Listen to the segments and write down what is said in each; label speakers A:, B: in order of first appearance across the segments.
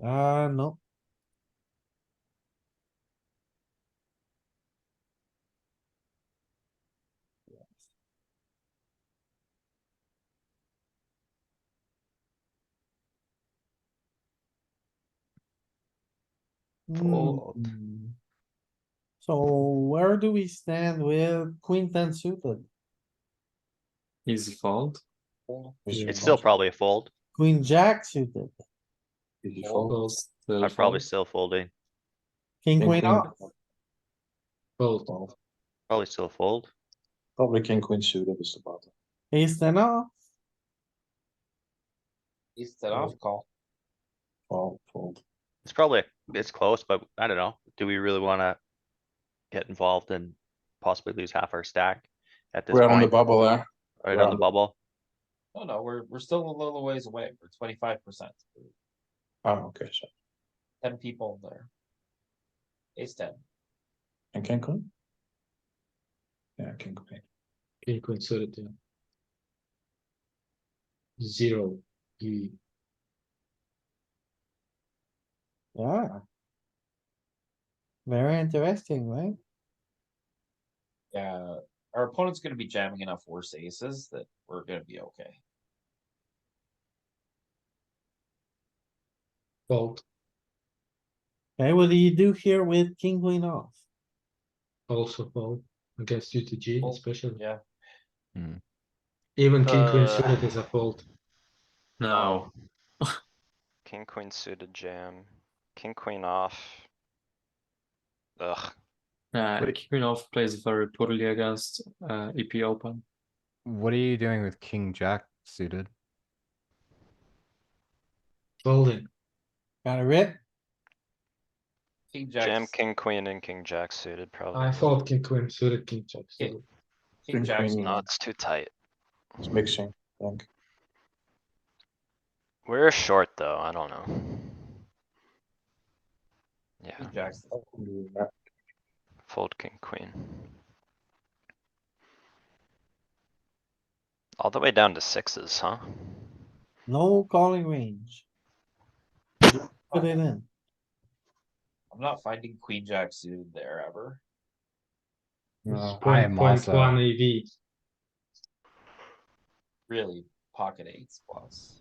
A: Uh, no,
B: Fold.
A: Hmm. So where do we stand with queen ten suited?
B: Easy fold.
C: It's still probably a fold.
A: Queen jack suited,
B: Easy
C: Fold.
B: fold. Still
C: I'm probably
B: fold.
C: still folding.
A: king
B: King,
A: queen
B: queen.
A: off.
B: Fold.
C: Probably still fold.
D: Probably king queen suited is the bottom.
A: Ace ten off,
E: Is that off call?
D: Fold, fold.
C: It's probably, it's close, but I don't know. Do we really wanna get involved and possibly lose half our stack at this
D: We're on the
C: point?
D: bubble there.
C: Right
D: we're
C: on
D: on
C: the
D: the-
C: bubble?
E: No, no, we're, we're still a little ways away. We're twenty-five percent.
D: Ah, okay, so,
E: Ten people there. Ace ten.
D: and king queen? Yeah, king queen.
B: King queen suited. Yeah. Zero. E.
A: yeah. Very interesting, right?
E: Yeah, our opponent's gonna be jamming enough worse aces that we're gonna be okay.
B: Fold.
A: Okay, what do you do here with king queen off?
B: Also fold against UTG,
E: Fold,
B: especially.
E: yeah.
C: Hmm.
B: Even king queen
F: Uh,
B: suited is a fold.
F: No,
G: King, queen suited jam, king, queen off. Ugh,
B: Uh, queen off plays very poorly against uh, EP open.
H: What are you doing with king jack suited?
B: Folding.
A: Got a rip?
E: King
G: jam,
E: jack,
G: king, queen and king jack suited
B: I
G: probably.
B: fold king queen suited king jack.
E: Yeah.
B: suited.
E: king jack.
D: queen.
G: No, it's too tight.
D: It's mixing, I think.
G: We're short though, I don't know. Yeah,
E: King jacks.
D: Yeah,
G: fold king, queen. All the way down to sixes, huh?
A: No calling range. Put it in.
E: I'm not finding queen jack suited there ever.
B: It's
H: No, I
B: point-
H: am
B: point One
H: also,
B: EV.
E: Really pocket eights plus.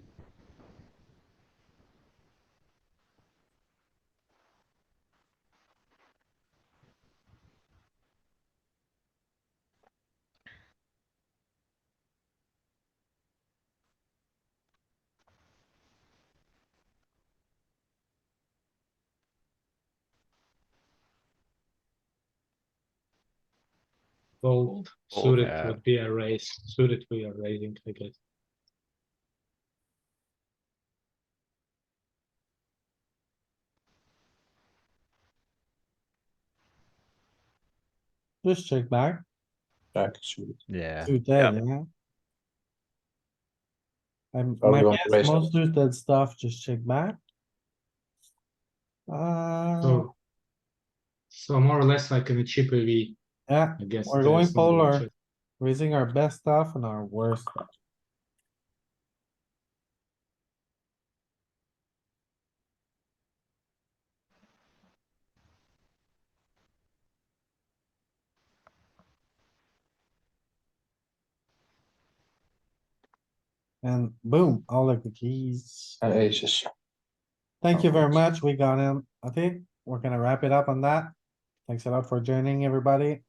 B: Fold.
G: Fold,
B: Suited
H: yeah.
B: would be a raise. Suited we are raising, I guess.
A: Just check back.
D: Jack suited.
H: yeah.
A: Suited, yeah. I'm,
D: Oh,
A: my
D: you want to
A: guess,
D: raise it.
A: most suited stuff, just check back. Uh,
B: So. So more or less like in a cheap EV,
A: yeah,
B: I guess.
A: We're
B: there's
A: going
B: some
A: polar.
B: check.
A: raising our best stuff and our worst. stuff. And boom, all of the keys.
D: And aces.
A: Thank you very
D: Alright.
A: much. We got him. I think we're gonna wrap it up on that. Thanks a lot for joining, everybody.